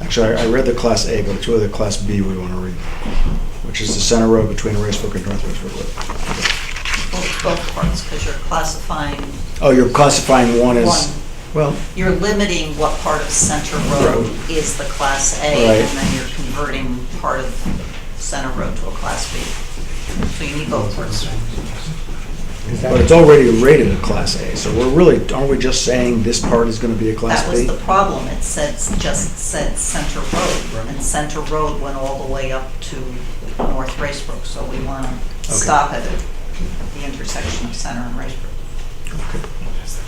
Actually, I I read the Class A, but it's really the Class B we want to read, which is the center road between Racebrook and North Racebrook Road. both both parts, because you're classifying Oh, you're classifying one one. as, well, You're limiting what part of Center Road is the Class A, Right. and then you're converting part of Center Road to a Class B. So you need both parts. Is but it's that, already rated a Class A, so we're really, aren't we just saying this part is going to be a Class That B? was the problem, it said, just said Center Road, and Center Road went all the way up to North Racebrook, so we want to Okay. stop at the intersection of Center and Racebrook.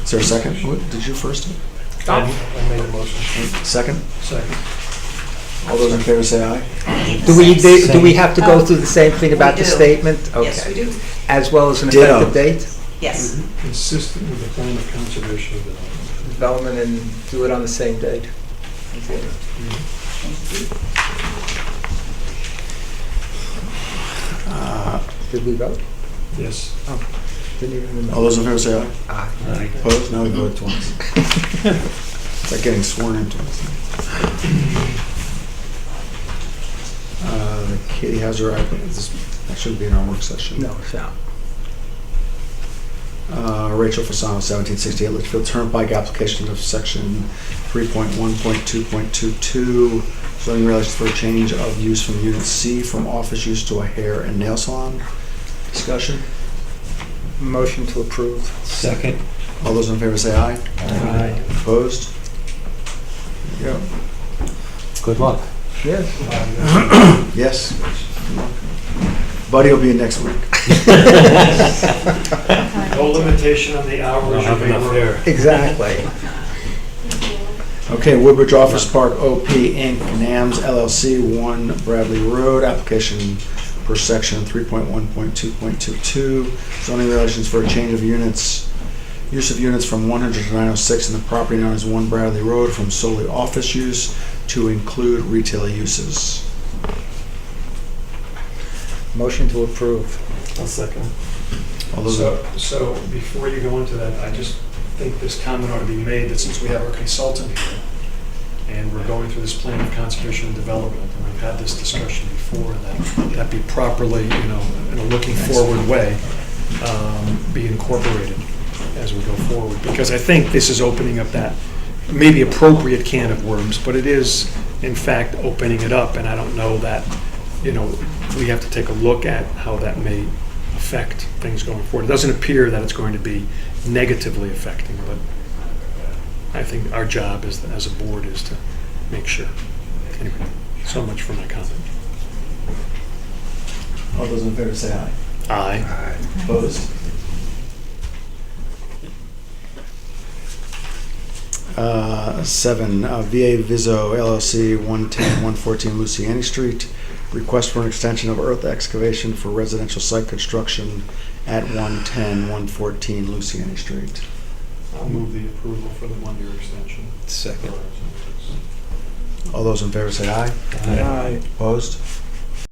Is there a second? What, Did you first? it? I I made a motion. Second? Second. All those in favor say aye. need the do we, same- do we have to go Oh. through the same thing about We the do. statement? Yes, we Okay. do, As well as an Ditto. effective date? Mm-hmm. yes. Consistent with the plan of conservation of development. Development and do it on the same date. Mm-hmm. Did we vote? Yes. Didn't even All remember. those in favor say Oh. aye. Ah, Opposed? Now we vote twice. It's like getting sworn in twice. Uh, Katie Hauser, I, this, that should be in our work session. No, it's not. Uh, Rachel Fasano, 1768 Litchfield Turnpike, application of section 3.1.2.22, zoning regulations for a change of use from unit C from office use to a hair and nail salon. Discussion? Motion to approve. Second. All those in favor say aye. Aye. Opposed? There you Good luck. Yes. go. Yes. Buddy will be in next week. No limitation on the hours you may work. Exactly. Okay, Woodbridge Office Park OP Inc., NAMS LLC, 1 Bradley Road, application per section 3.1.2.22, zoning regulations for a change of units, use of units from 100 to 906 in the property known as 1 Bradley Road from solely office use to include retail uses. Motion to approve. I'll second. All those, So, so before you go into that, I just think this comment ought to be made, that since we have our consultant here, and we're going through this plan of conservation and development, and we've had this discussion before, and that that be properly, you know, in a looking forward way, um, be incorporated as we go forward, because I think this is opening up that maybe appropriate can of worms, but it is, in fact, opening it up, and I don't know that, you know, we have to take a look at how that may affect things going forward. It doesn't appear that it's going to be negatively affecting, but I think our job as, as a board is to make sure. Anyway, so much for my comment. all those in favor say aye. Aye. Opposed? Uh, Seven, uh, VA Viso LLC, 110, 114 Luciani Street. Request for an extension of earth excavation for residential site construction at 110, 114 Luciani Street. I'll move the approval for the one-year extension. Second. All those in favor say aye. Aye. Opposed?